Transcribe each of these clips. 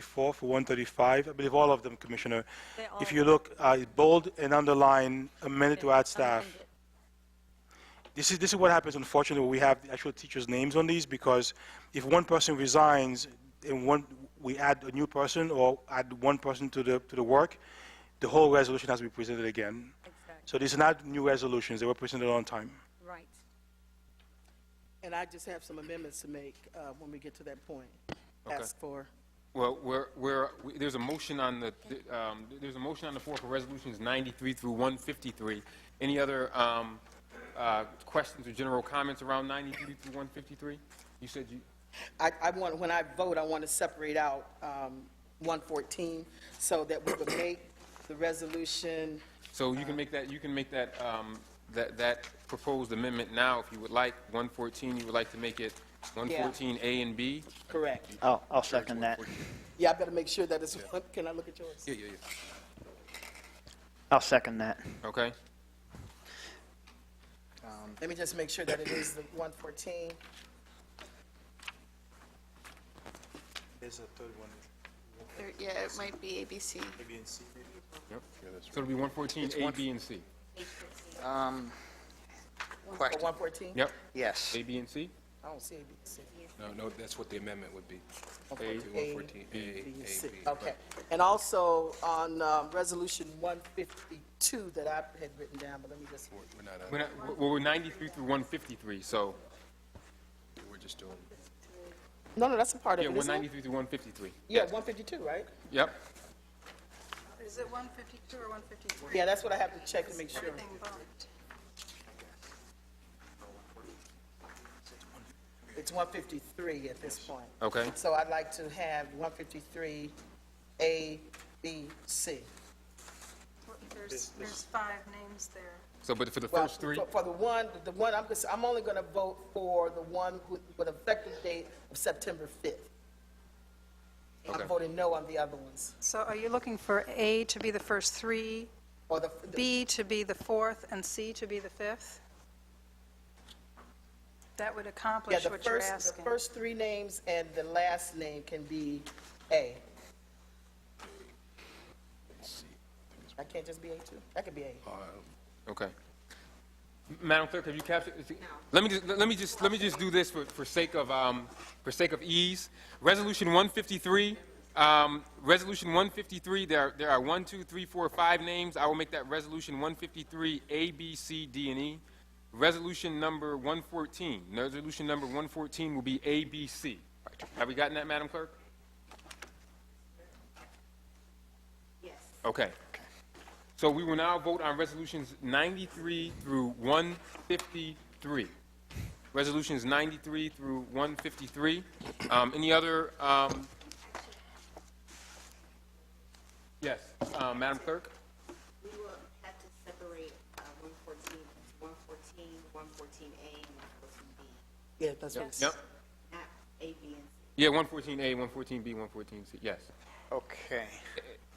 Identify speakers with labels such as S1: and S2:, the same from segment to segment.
S1: 134 for 135, I believe all of them, Commissioner.
S2: They're all
S1: If you look, uh, bold and underline, amended to add staff.
S2: amended.
S1: This is, this is what happens unfortunately, when we have the actual teachers' names on these, because if one person resigns and one, we add a new person or add one person to the, to the work, the whole resolution has to be presented again.
S2: Exactly,
S1: So these are not new resolutions, they were presented on time.
S2: right.
S3: And I just have some amendments to make uh, when we get to that point.
S4: Okay.
S3: Ask for,
S4: Well, we're, we're, we- there's a motion on the, th- um, there's a motion on the floor for resolutions 93 through 153. Any other um, uh, questions or general comments around 93 through 153? You said you,
S3: I, I want, when I vote, I want to separate out um, 114 so that we would make the resolution,
S4: so you can make that, you can make that, um, that, that proposed amendment now if you would like. 114, you would like to make it 114A and B?
S3: correct.
S5: Oh, I'll second that.
S3: Yeah, I better make sure that it's, one- can I look at yours?
S4: Yeah, yeah, yeah.
S5: I'll second that.
S4: Okay.
S3: Let me just make sure that it is the Oh, 114.
S1: There's a third one,
S6: Or, yeah, it might be ABC.
S1: maybe in C.
S4: So it'll be 114A, B, and C.
S5: Um,
S3: Or 114?
S4: Yep,
S5: yes.
S4: A, B, and C?
S3: I don't see A, B, C.
S7: No, no, that's what the amendment would be.
S4: A,
S7: 114, A,
S3: B,
S7: A,
S3: C.
S7: B.
S3: Okay. And also on um, Resolution 152 that I had written down, but let me just,
S7: We're we're not, uh, on-
S4: We're not- we're we're 93 through 153, so,
S7: we're just doing,
S3: no, no, that's a part of
S4: yeah,
S3: it, isn't it?
S4: 193 through 153.
S3: Yeah, 152, right?
S4: Yep.
S8: Is it 152 or 153?
S3: Yeah, that's what I have to check to make sure.
S8: Everything bumped.
S3: It's 153 at this point.
S4: Okay.
S3: So I'd like to have 153 A, B, C.
S8: There's, there's five names there.
S4: So, but for the
S3: Well,
S4: first three,
S3: for- For the one, the one, I'm, just- I'm only going to vote for the one with with effective date of September 5th.
S4: Okay.
S3: I'm voting no on the other ones.
S8: So are you looking for A to be the first three,
S3: Or the,
S8: B to be the fourth, and C to be the fifth? That would
S3: yeah,
S8: accomplish
S3: the
S8: what you're
S3: first, the
S8: asking.
S3: first three names and the last name can be A. I can't just be A too? I could be A.
S4: okay. Madam Clerk, have you captured? is it- Let me just, let me just, let me just do this for, for sake of, um, for sake of ease. Resolution 153, um, Resolution 153, there, are- there are one, two, three, four, five names. I will make that Resolution 153, A, B, C, D, and E. Resolution number 114, Resolution number 114 will be A, B, C. Have we gotten that, Madam Clerk? Okay. So we will now vote on resolutions 93 through 153. Resolutions 93 through 153. Um, Any other? um, Yes, uh, Madam Clerk?
S9: We will have to separate uh, 114, 114, 114A, and 114B,
S3: Yeah, that's what it
S4: Yep.
S9: not A, B, and C.
S4: Yeah, 114A, 114B, 114C, yes.
S5: Okay.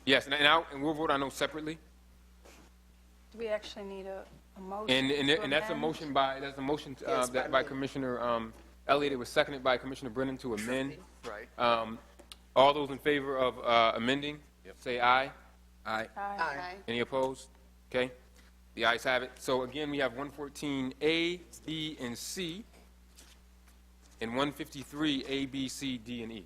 S4: Yes, and now, and we'll vote on those separately.
S8: Do we actually need a, a motion?
S4: And, and,
S8: to
S4: and that's a
S8: amend?
S4: motion by, that's a motion uh,
S3: Yes, by
S4: that by
S3: me.
S4: Commissioner um, Elliott. It was seconded by Commissioner Brennan to amend.
S5: Right.
S4: Um, All those in favor of uh, amending, say aye.
S7: aye,
S8: Aye.
S6: Aye.
S4: Any opposed? Okay, the ayes have it. So again, we have 114A, B, and C, and 153A, B, C, D, and E.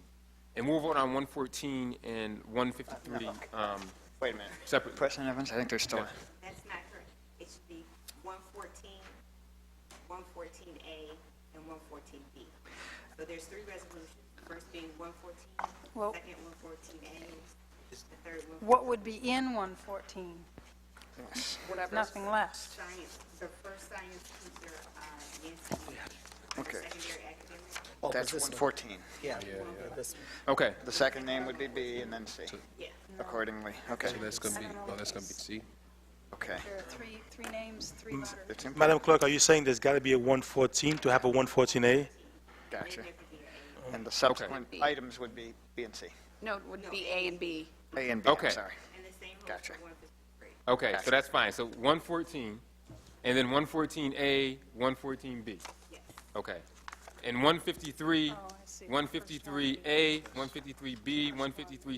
S4: And we'll vote on 114 and 153 um,
S5: Wait a minute.
S4: separately.
S5: President Evans, I think there's still,
S9: That's not correct. It should be 114, 114A, and 114B. So there's three resolutions, first being 114,
S8: Well-
S9: second 114A, the third
S8: What would be in 114? Nothing left.
S9: science, the first science teacher, uh, Nancy.
S5: Okay.
S9: Secondary academic.
S3: Oh,
S5: that's
S3: this one.
S5: 114.
S3: Yeah. This one.
S4: Okay,
S5: The second name would be B and then C
S9: Yeah.
S5: accordingly. Okay,
S7: so that's gonna be, oh, that's gonna be C?
S5: okay.
S8: There are three, three names, three letters.
S5: It's in,
S1: Madam Clerk, are you saying there's got to be a 114 to have a 114A?
S5: gotcha. And the subsequent items would be B and C.
S6: No, it would be A and B.
S5: A and B, I'm
S4: Okay.
S5: sorry.
S9: And the same rule
S5: Gotcha.
S9: for 153.
S4: okay, so that's fine. So 114, and then 114A, 114B.
S9: Yes.
S4: Okay. and 153,
S8: Oh, I see.
S4: 153A, 153B, 153